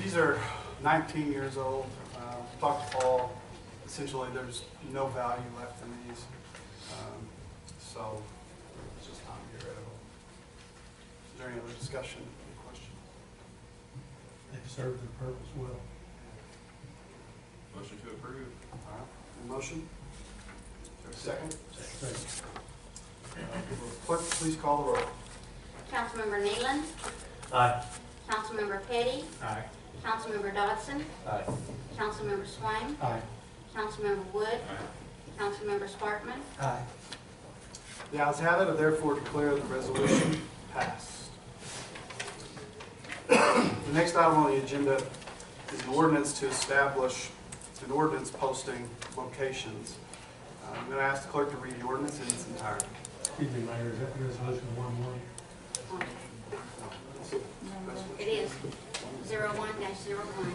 kids are 19 years old. Uh, Talked to Paul, essentially there's no value left in these. Um, So it's just time to get rid of them. Is there any other discussion, any questions? They've served their purpose well. Motion to approve. All right, any motion? Is there a second? Second. Uh, will the Clerk, please call the roll. Councilmember Nealon, Aye. Councilmember Petty, Aye. Councilmember Dodson, Aye. Councilmember Swain, Aye. Councilmember Wood, Aye. Councilmember Sparkman, Aye. The ayes have it, I therefore declare the resolution passed. The next item on the agenda is an ordinance to establish an ordinance posting locations. Uh, I'm going to ask the clerk to read the ordinance in its entirety. Excuse me, Mayor, is that resolution one one? it is 01-01.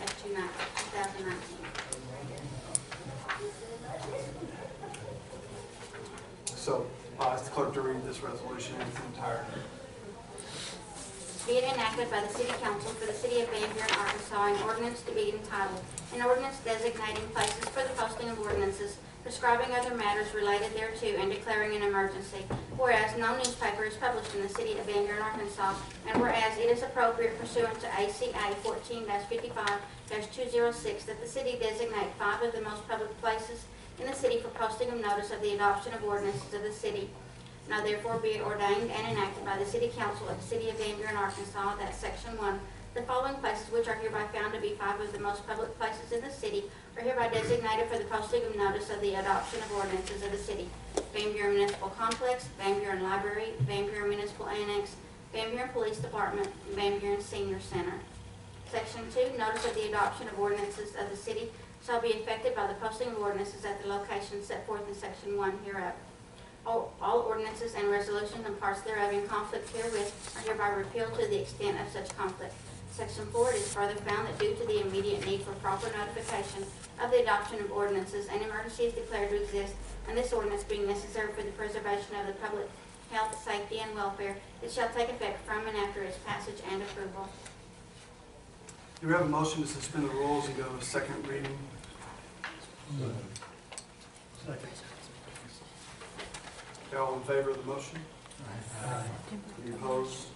That's 2019. So I'll ask the clerk to read this resolution in its entirety. Be it enacted by the City Council for the City of Van Buren, Arkansas, an ordinance to be entitled, an ordinance designating places for the posting of ordinances, prescribing other matters related thereto, and declaring an emergency. Whereas no newspaper is published in the City of Van Buren, Arkansas, and whereas it is appropriate pursuant to ACA fourteen fifty-five two zero six that the city designate five of the most public places in the city for posting of notice of the adoption of ordinances of the city, now therefore be it ordained and enacted by the City Council of the City of Van Buren, Arkansas, that Section 1, the following places which are hereby found to be five of the most public places in the city are hereby designated for the posting of notice of the adoption of ordinances of the city. Van Buren Municipal Complex, Van Buren Library, Van Buren Municipal Annex, Van Buren Police Department, and Van Buren Senior Center. Section 2, notice of the adoption of ordinances of the city shall be effected by the posting of ordinances at the locations set forth in Section 1 hereof. All all ordinances and resolutions and parts thereof in conflict herewith are hereby repealed to the extent of such conflict. Section 4, it is further found that due to the immediate need for proper notification of the adoption of ordinances, an emergency is declared to exist, and this ordinance being necessary for the preservation of the public health, safety, and welfare, it shall take effect from and after its passage and approval. Do we have a motion to suspend the rules and go to second reading? Second. Okay, All in favor of the motion? Aye. Any opposed?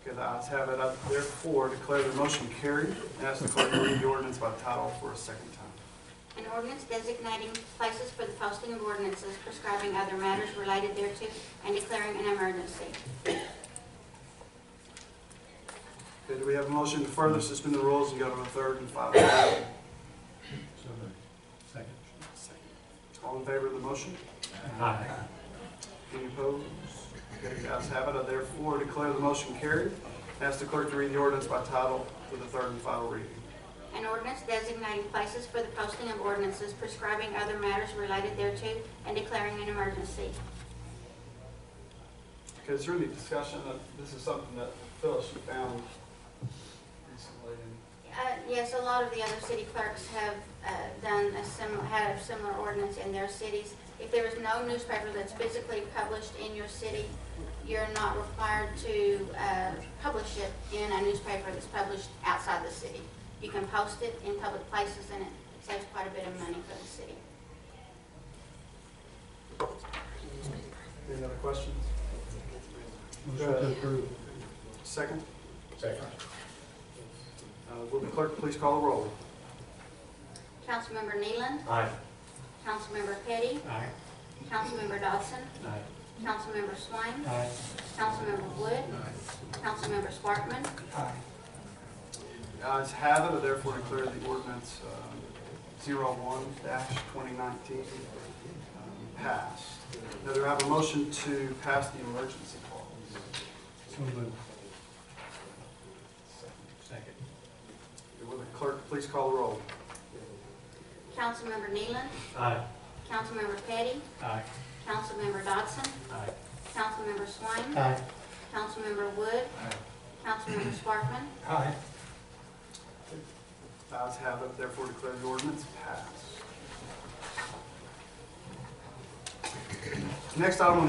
Okay, the ayes have it. I therefore declare the motion carried and ask the clerk to read the ordinance by title for a second time. An ordinance designating places for the posting of ordinances prescribing other matters related thereto and declaring an emergency. Okay, do we have a motion to further suspend the rules and go to a third and final reading? So moved. Second. All in favor of the motion? Aye. Any opposed? Okay, the ayes have it. I therefore declare the motion carried and ask the clerk to read the ordinance by title for the third and final reading. An ordinance designating places for the posting of ordinances prescribing other matters related thereto and declaring an emergency. Okay, is there any discussion? Uh, This is something that Phyllis found recently and Uh, Yes, a lot of the other city clerks have uh, done a similar, had a similar ordinance in their cities. If there is no newspaper that's physically published in your city, you're not required to uh, publish it in a newspaper that's published outside the city. You can post it in public places, and it saves quite a bit of money for the city. Any other questions? Motion to approve. Second? Second. Uh, Will the clerk please call the roll? Councilmember Nealon, Aye. Councilmember Petty, Aye. Councilmember Dodson, Aye. Councilmember Swain, Aye. Councilmember Wood, Councilmember Sparkman, Aye. The ayes have it, I therefore declare the ordinance uh, zero one twenty nineteen um, passed. Now, do I have a motion to pass the emergency clause? So moved. Second. Will the clerk please call the roll? Councilmember Nealon, Aye. Councilmember Petty, Aye. Councilmember Dodson, Aye. Councilmember Swain, Aye. Councilmember Wood, Councilmember Sparkman, Aye. The ayes have it, therefore declare the ordinance passed. Next item on the